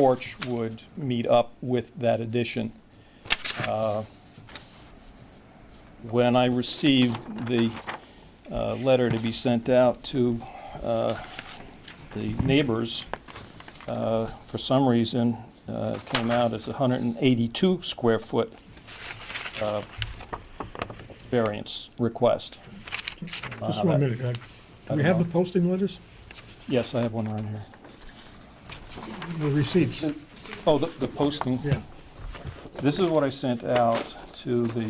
porch would meet up with that addition. Uh, When I received the uh, letter to be sent out to uh, the neighbors, uh, for some reason, uh, it came out as 182 square foot uh, variance request. Just Uh, one minute, uh, do we have the posting letters, Yes, I have one right here. the receipts? Oh, the the posting, Yeah, this is what I sent out to the,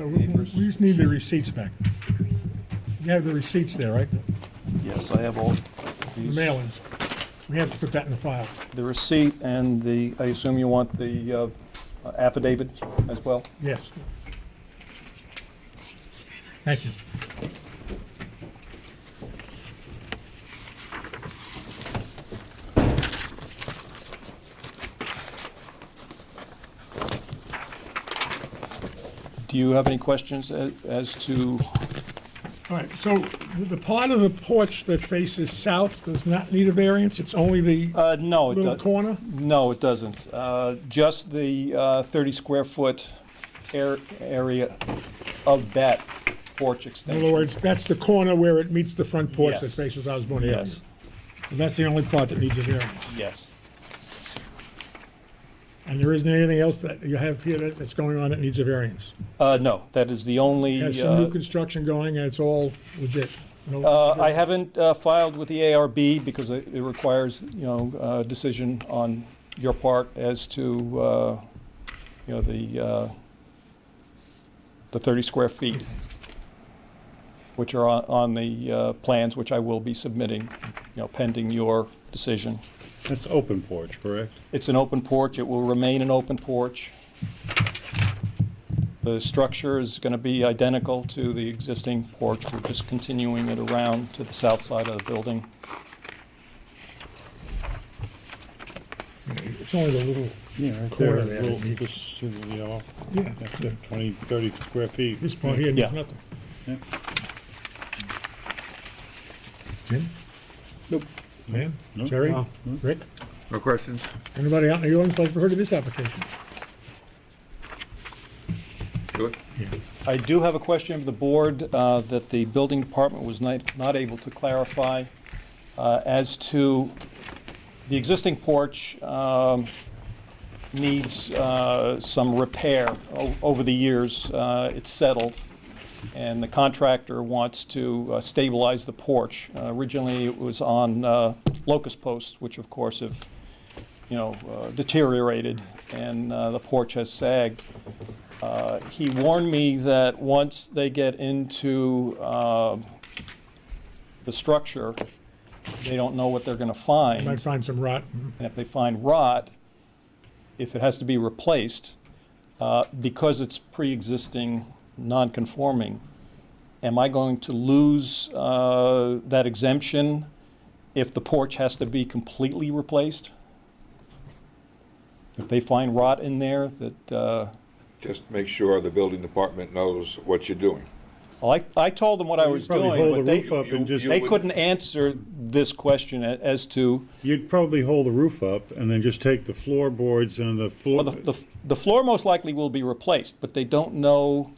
No, we we just need the receipts back. You have the receipts there, right, yes, I have all the these. mailings, we have to put that in the file. The receipt and the, I assume you want the uh, affidavit as well? Yes. Thank you. Do you have any questions a- as to, All right, so the- the part of the porch that faces south does not need a variance, it's only the uh, no, it little doesn't. corner? No, it doesn't. Uh, Just the uh, 30 square foot air- area of that porch In extension. other words, that's the corner where it meets the front porch that Yes. faces Osborne Avenue. Yes, And that's the only part that needs a variance. yes. And there isn't anything else that you have here that- that's going on that needs a variance? Uh, No, that is the only. Has some new uh, construction going, and it's all legit? No- Uh, I haven't uh, filed with the ARB because it it requires, you know, a decision on your part as to, uh, you know, the, uh, the 30 square feet, which are on- on the uh, plans, which I will be submitting, you know, pending your decision. That's open porch, correct? It's an open porch, it will remain an open porch. The structure is going to be identical to the existing porch, we're just continuing it around to the south side of the building. It's only the little, Yeah, right Corner there, there, little- it needs- just, you know, yeah, that's it, 20, 30 square feet. this part here needs Yeah. nothing. Yeah. Jim? Nope. Lynn? No. Jerry? No. Rick? No questions? Anybody out in the audience like to heard of this application? Do it. I do have a question of the board uh, that the building department was not, not able to clarify uh, as to the existing porch um, needs uh, some repair. O- Over the years, uh, it's settled, and the contractor wants to uh, stabilize the porch. Uh, Originally, it was on uh, locust posts, which of course have, you know, uh, deteriorated, and uh, the porch has sagged. Uh, He warned me that once they get into um, the structure, they don't know what they're going to You find. might find some rot. And if they find rot, if it has to be replaced, uh, because it's pre-existing non-conforming, am I going to lose uh, that exemption if the porch has to be completely replaced? If they find rot in there that, uh, Just make sure the building department knows what you're doing. well, I I told them what I was Probably doing, but hold the they, roof up and you- just, they couldn't answer this question a- as to, you'd probably hold the roof up and then just take the floorboards and the floor. Well, the, the, the floor most likely will be replaced, but they don't know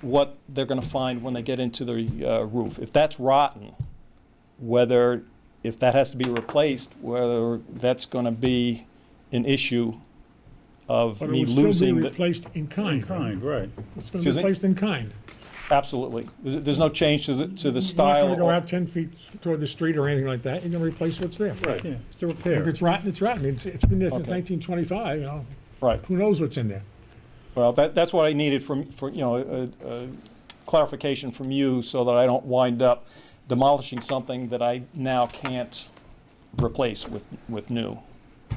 what they're gonna find when they get into the uh, roof. If that's rotten, whether, if that has to be replaced, whether that's gonna be an issue of But me it would still losing be the. replaced in kind. right? Kind, right. It's going to Excuse be me? replaced in kind. Absolutely. There's, there's no change to the, to the You're not going to go style. out 10 feet toward the street or anything like that, you're going to replace what's there. Yeah, it's a If repair. it's rotten, it's rotten, it's, it's been there since Okay. 1925, you know, Right. who knows what's in there? Well, that, that's what I needed from, for, you know, a, a clarification from you so that I don't wind up demolishing something that I now can't replace with, with new.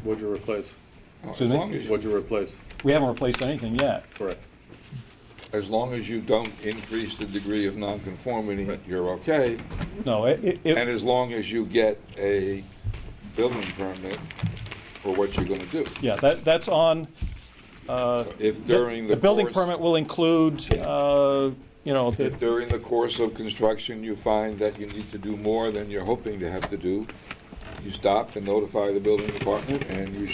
What'd you replace? As Excuse me? long as, you- What'd you replace? We haven't replaced anything yet. Correct. as long as you don't increase the degree of nonconformity, you're okay. No, it, it- it, And as long as you get a building permit for what you're gonna do. yeah, that, that's on, uh, If during the the building course- permit will include, uh, you know, the, If during the course of construction you find that you need to do more than you're hoping to have to do, you stop and notify the building department, and you